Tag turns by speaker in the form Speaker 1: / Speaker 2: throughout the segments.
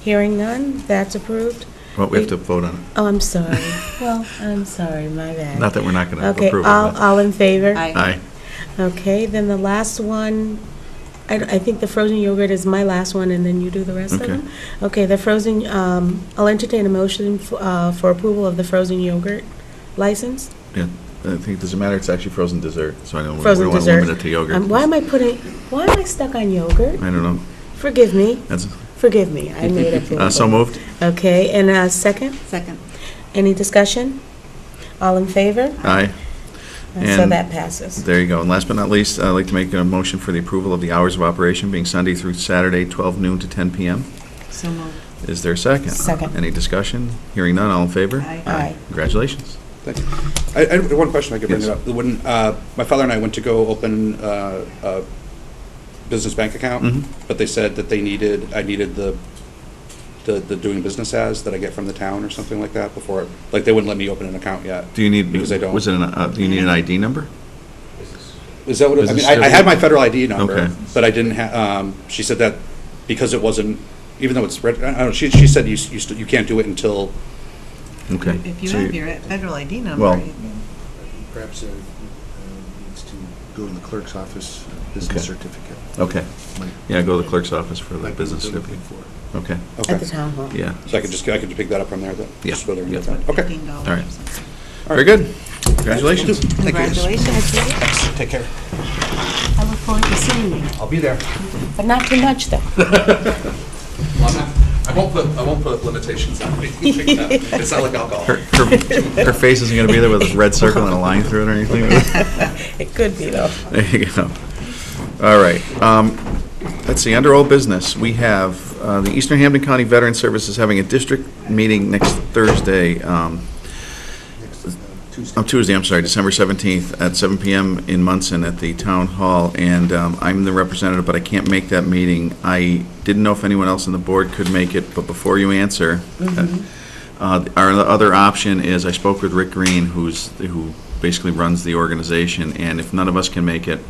Speaker 1: Hearing none, that's approved.
Speaker 2: Well, we have to vote on it.
Speaker 1: Oh, I'm sorry. Well, I'm sorry, my bad.
Speaker 2: Not that we're not going to
Speaker 1: Okay,
Speaker 2: approve it.
Speaker 1: all,
Speaker 2: but-
Speaker 1: all in favor?
Speaker 3: Aye.
Speaker 2: Aye.
Speaker 1: Okay, then the last one, I, I think the frozen yogurt is my last one, and then you do the rest of
Speaker 2: Okay.
Speaker 1: them? Okay, the frozen, um, I'll entertain a motion, f- uh, for approval of the frozen yogurt license?
Speaker 2: Yeah, I think, it doesn't matter, it's actually frozen dessert, so I don't, we
Speaker 1: Frozen
Speaker 2: don't want to
Speaker 1: dessert.
Speaker 2: limit it to yogurt.
Speaker 1: Um, Why am I putting, why am I stuck on yogurt?
Speaker 2: I don't know.
Speaker 1: Forgive me,
Speaker 2: That's,
Speaker 1: forgive me, I made up the
Speaker 2: uh, so moved?
Speaker 1: Okay, and a second,
Speaker 3: Second.
Speaker 1: any discussion? All in favor?
Speaker 2: Aye.
Speaker 1: And So
Speaker 2: And-
Speaker 1: that passes.
Speaker 2: There you go. And last but not least, I'd like to make a motion for the approval of the hours of operation being Sunday through Saturday, 12 noon to 10 p.m.
Speaker 3: So moved.
Speaker 2: Is there a second?
Speaker 1: Second.
Speaker 2: Any discussion? Hearing none, all in favor?
Speaker 3: Aye.
Speaker 1: Aye.
Speaker 2: Congratulations.
Speaker 4: Thank you. I, I had one question I could bring
Speaker 2: Yes.
Speaker 4: it up. When, uh, my father and I went to go open, uh, a business bank
Speaker 2: Mhm.
Speaker 4: account, but they said that they needed, I needed the, the, the doing business as that I get from the town or something like that before, like, they wouldn't let me open an account yet.
Speaker 2: Do you need,
Speaker 4: Because I don't.
Speaker 2: was it, an, uh, do you need an ID number?
Speaker 4: Is that what, it- I mean,
Speaker 2: Business
Speaker 4: I, I had
Speaker 2: certificate?
Speaker 4: my federal ID
Speaker 2: Okay.
Speaker 4: number, but I didn't have, um, she said that because it wasn't, even though it's, reg- I don't know, she, she said you, s- you, st- you can't do it until,
Speaker 2: Okay.
Speaker 3: If you
Speaker 2: So
Speaker 3: have your federal ID
Speaker 2: Well-
Speaker 3: number, you-
Speaker 5: Perhaps uh, uh, needs to go to the clerk's office, uh, business
Speaker 2: Okay.
Speaker 5: certificate.
Speaker 2: Okay.
Speaker 5: Might-
Speaker 2: Yeah, go to the clerk's office for
Speaker 5: might
Speaker 2: the
Speaker 5: be
Speaker 2: business
Speaker 5: what they're looking
Speaker 2: certificate.
Speaker 5: for.
Speaker 2: Okay,
Speaker 4: okay.
Speaker 1: At the town hall.
Speaker 2: yeah.
Speaker 4: So I could just, I could pick that up from there, then?
Speaker 2: Yeah.
Speaker 4: Just go there and get
Speaker 2: Yeah.
Speaker 4: that. Okay.
Speaker 3: fifteen dollars.
Speaker 2: All right. Very good. Congratulations.
Speaker 4: Thank you.
Speaker 3: Congratulations. Judy.
Speaker 4: Take care.
Speaker 1: I look forward to seeing you,
Speaker 4: I'll be there.
Speaker 1: but not too much, though.
Speaker 4: I won't put, I won't put limitations on me. It's not like alcohol.
Speaker 2: Her, her her face isn't going to be there with a red circle and a line through it or anything?
Speaker 1: It could be, though.
Speaker 2: There you go. All right. um, Let's see, under old business, we have uh, the Eastern Hampton County Veteran Services having a district meeting next Thursday, um,
Speaker 5: Next, uh, Tuesday.
Speaker 2: on Tuesday, I'm sorry, December 17th at 7 PM in Munson at the Town Hall. And um, I'm the representative, but I can't make that meeting. I didn't know if anyone else on the board could make it, but before you answer, uh, our other option is, I spoke with Rick Green, who's, who basically runs the organization, and if none of us can make it,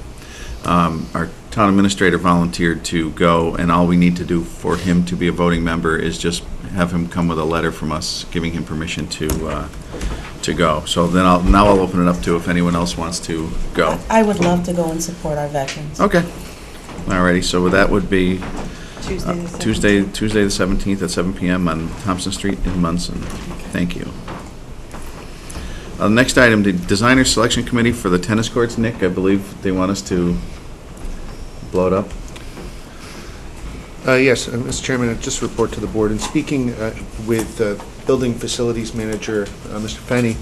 Speaker 2: um, our town administrator volunteered to go, and all we need to do for him to be a voting member is just have him come with a letter from us giving him permission to, uh, to go. So then I'll, now I'll open it up to if anyone else wants to go.
Speaker 1: I would love to go and support our veterans.
Speaker 2: Okay. Alrighty, so that would be uh,
Speaker 3: Tuesday the seventeenth.
Speaker 2: Tuesday, Tuesday the 17th at 7 PM on Thompson Street in Munson. Thank you. Uh, Next item, the Designer Selection Committee for the tennis courts. Nick, I believe they want us to blow it up.
Speaker 5: Uh, Yes, uh, Mr. Chairman, I just report to the board, in speaking uh, with uh, Building Facilities Manager, uh, Mr. Fenny,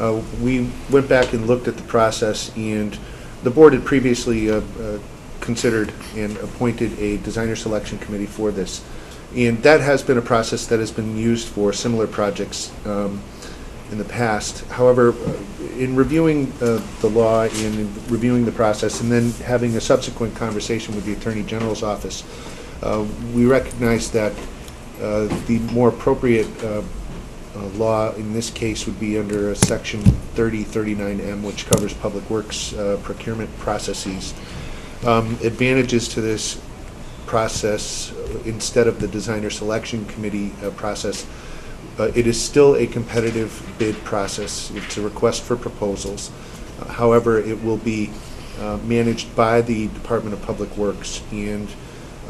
Speaker 5: uh, we went back and looked at the process, and the board had previously uh, uh, considered and appointed a designer selection committee for this. And that has been a process that has been used for similar projects um, in the past. However, uh, in reviewing uh, the law and in reviewing the process, and then having a subsequent conversation with the Attorney General's office, uh, we recognize that uh, the more appropriate uh, uh, law in this case would be under Section 3039M, which covers public works uh, procurement processes. Um, Advantages to this process, uh, instead of the designer selection committee uh, process, uh, It is still a competitive bid process. It's a request for proposals. Uh, However, it will be uh, managed by the Department of Public Works and,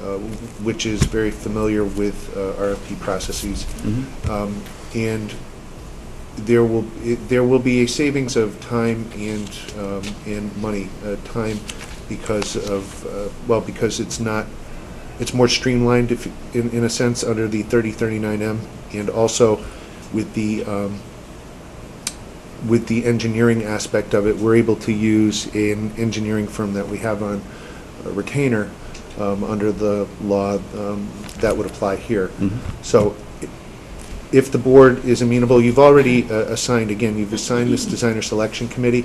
Speaker 5: uh, which is very familiar with uh, RFP processes. Um, And there will, it- there will be a savings of time and, um, and money. Uh, Time because of, uh, well, because it's not it's more streamlined if, in, in a sense, under the 3039M, and also with the, um, with the engineering aspect of it, we're able to use an engineering firm that we have on uh, retainer um, under the law um, that would apply here. So i- if the board is amenable, you've already uh, assigned, again, you've assigned this designer selection committee.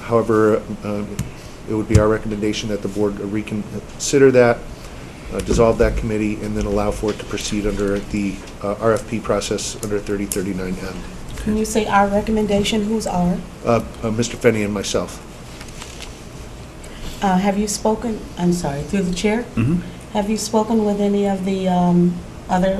Speaker 5: However, um, it would be our recommendation that the board reconsider that uh, dissolve that committee, and then allow for it to proceed under the uh, RFP process under 3039M.
Speaker 1: Can you say our recommendation, who's our?
Speaker 5: Uh, uh, Mr. Fenny and myself.
Speaker 1: Uh, Have you spoken, I'm sorry, through the chair?
Speaker 2: Mhm.
Speaker 1: Have you spoken with any of the um, other